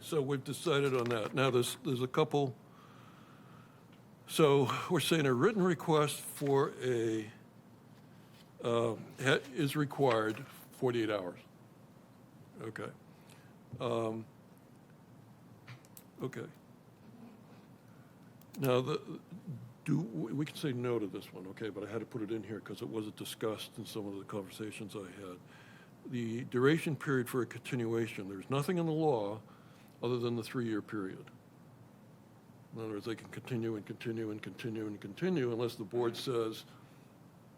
so we've decided on that. Now, there's, there's a couple, so we're saying a written request for a, uh, ha- is required 48 hours. Okay. Um, Okay. Now, the, do, we we can say no to this one, okay, but I had to put it in here because it wasn't discussed in some of the conversations I had. The duration period for a continuation, there's nothing in the law other than the three-year period. In other words, they can continue and continue and continue and continue unless the board says,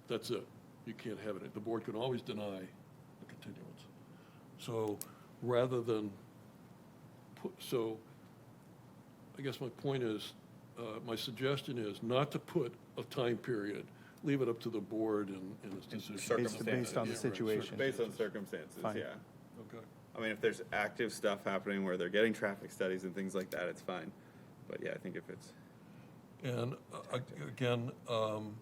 that's it, you can't have it. The board can always deny a continuance. So rather than, pu- so I guess my point is, uh, my suggestion is not to put a time period, leave it up to the board and and its decision. Based- based on Yeah, the right, situation. circum- Based on circumstances, Fine. yeah. Okay. I mean, if there's active stuff happening where they're getting traffic studies and things like that, it's fine. But yeah, I think if it's, And uh, ag- again, um,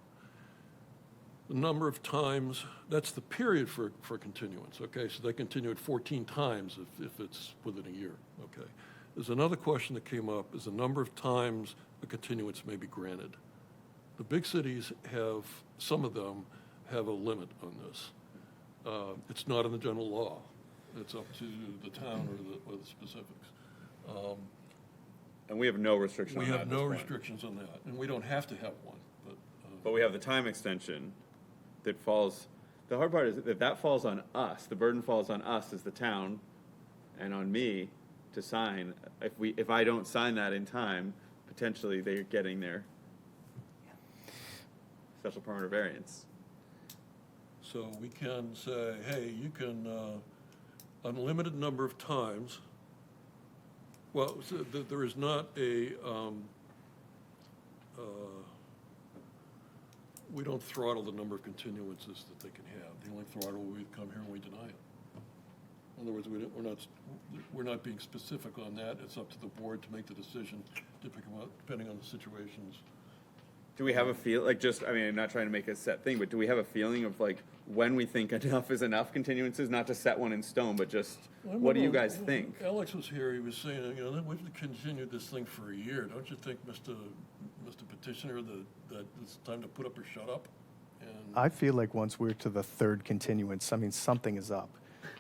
the number of times, that's the period for, for continuance, okay? So they continue it 14 times if, if it's within a year, okay? There's another question that came up, is the number of times a continuance may be granted. The big cities have, some of them have a limit on this. Uh, It's not in the general law. It's up to the town or the, or the specifics. Um, and we have no restriction we on that. have at this no point. restrictions on that, and we don't have to have one, but, uh, But we have the time extension that falls, the hard part is that that falls on us. The burden falls on us as the town and on me to sign. If we, if I don't sign that in time, potentially they're getting their special permit or variance. so we can say, hey, you can, uh, unlimited number of times. Well, so th- there is not a, um, uh, we don't throttle the number of continuances that they can have. The only throttle, we come here and we deny it. In other words, we don't, we're not, we're not being specific on that. It's up to the board to make the decision, depending on- depending on the situations. Do we have a feel, like, just, I mean, I'm not trying to make a set thing, but do we have a feeling of, like, when we think enough is enough continuances? Not to set one in stone, but just, I what do you remember guys when think? Alex was here, he was saying, you know, we've continued this thing for a year, don't you think, Mr. Mr. Petitioner, that, that it's time to put up or shut up? And, I feel like once we're to the third continuance, I mean, something is up.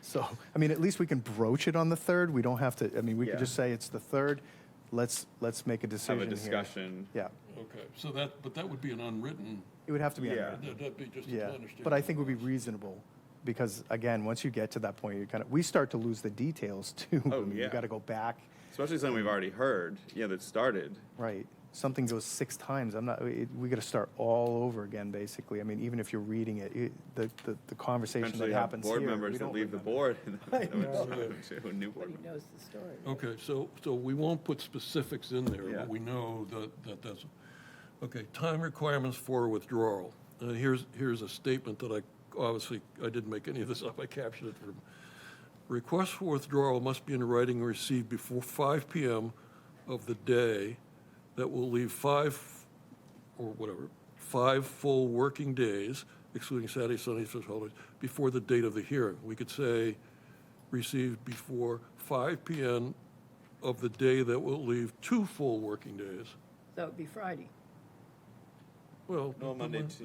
So, I mean, at least we can broach it on the third. We don't have to, I mean, we Yeah. could just say it's the third. Let's, let's make a decision Have here. a discussion? Yeah. okay, so that, but that would be an unwritten, It would have to be on Yeah. the- that- that'd be just an Yeah, understatement. but I think it would be reasonable, because again, once you get to that point, you kind of, we start to lose the details too. Oh, You yeah. gotta go back, Especially something we've already heard, yeah, that started. right? Something goes six times, I'm not, it- we gotta start all over again, basically. I mean, even if you're reading it, it, the, the, the conversation Eventually, that you have happens here. board members we that don't leave the remember. board. and then know. it's a New board Everybody member. knows the story. Okay, so, so we won't put specifics in there, Yeah. but we know that, that that's, okay, time requirements for withdrawal. And here's, here's a statement that I, obviously, I didn't make any of this up, I captured it from. Request for withdrawal must be in writing and received before five PM of the day that will leave five, or whatever, five full working days, excluding Saturday, Sunday, such holidays, before the date of the hearing. We could say, received before 5 PM of the day that will leave two full working days. So it'd be Friday. Well, No, Monday, Tuesday,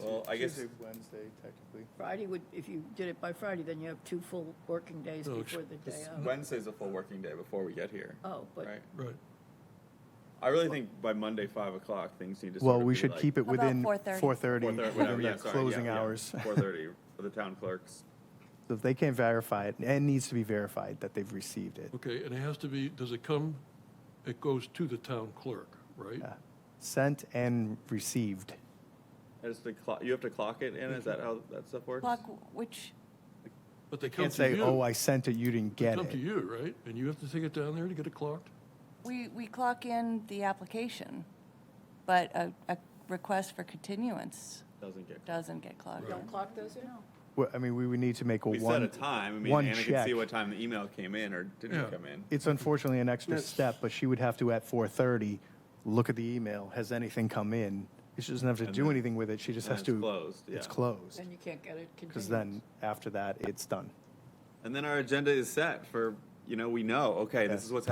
well, I guess, Wednesday, technically. Friday would, if you did it by Friday, then you have two full working days No, before the day this- of. Wednesday's a full working day before we get here, Oh, but right? right. I really think by Monday, five o'clock, things need to sort Well, of we be should like- keep it How about within 4:30? four thirty, 4:30, within whatever, the yeah, sorry, yeah, closing yeah. hours. 4:30 for the town clerks. So if they can't verify it, and it needs to be verified that they've received it. Okay, and it has to be, does it come, it goes to the town clerk, right? Yeah. uh, Sent and received. I just, the clock- you have to clock it in, is that how that stuff works? Clock, which, But they come Can't to say, you. oh, I sent it, you didn't They get Come to it. you, right? And you have to take it down there to get it clocked? we, we clock in the application, but a, a request for continuance Doesn't get. doesn't get clocked in. don't clock those in? Well, I mean, we would need to make a We set one, a time, I mean, one Anna can see check. what time the email came in or Yeah. didn't come in. It's unfortunately an extra That's- step, but she would have to, at four thirty, look at the email, has anything come in? She doesn't have to And do then- anything with it, she just then has it's to. closed, It's yeah. closed, Then you can't get it because continued. then, after that, it's done. And then our agenda is set for, you know, we know, okay, this Yeah. is what's happening